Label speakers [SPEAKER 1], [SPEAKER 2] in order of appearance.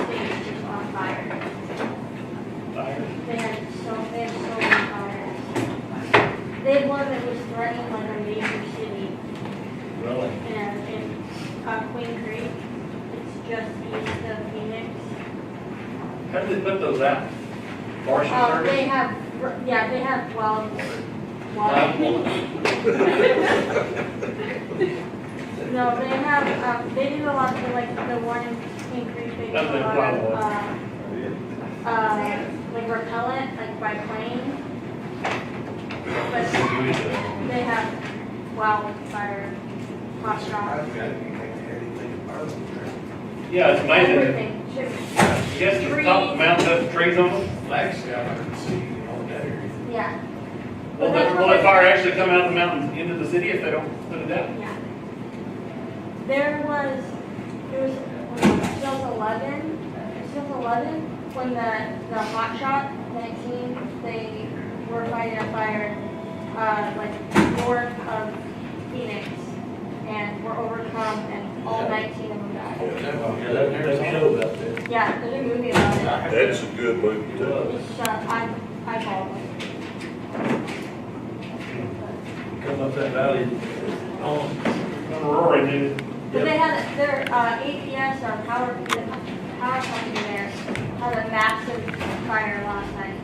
[SPEAKER 1] uh,
[SPEAKER 2] How do they put those out? Varsity
[SPEAKER 1] Uh, they
[SPEAKER 2] service?
[SPEAKER 1] have, yeah, they have well,
[SPEAKER 2] Live
[SPEAKER 1] well,
[SPEAKER 2] one.
[SPEAKER 1] no, they have, um, they do a lot of like the one in King Creek, they do a
[SPEAKER 2] That's like
[SPEAKER 1] lot of,
[SPEAKER 2] flywall.
[SPEAKER 1] uh, uh, like repellent, like by plane. But
[SPEAKER 2] We, uh,
[SPEAKER 1] they have wildfire hot shot,
[SPEAKER 3] I've got anything, anything about them.
[SPEAKER 2] Yeah, it's amazing.
[SPEAKER 1] everything, shit.
[SPEAKER 2] Yes, the top mountain has trees on them.
[SPEAKER 3] Actually, I haven't seen it all day.
[SPEAKER 1] yeah,
[SPEAKER 2] Will that, will that fire actually come out of the mountain into the city if they don't put it out?
[SPEAKER 1] yeah. There was, there was, there was eleven, there was eleven, when the, the hot shot nineteen, they were fighting a fire, uh, like north of Phoenix, and were overcome, and all nineteen of them died.
[SPEAKER 3] Yeah, that- that show up there.
[SPEAKER 1] Yeah, there's a movie about it,
[SPEAKER 4] That's a good movie too.
[SPEAKER 1] it's, uh, I, I follow it.
[SPEAKER 5] Come up that valley, on,
[SPEAKER 2] When Rory did it.
[SPEAKER 1] But they had, their, uh, APS, or power, the power company there, had a massive fire last night.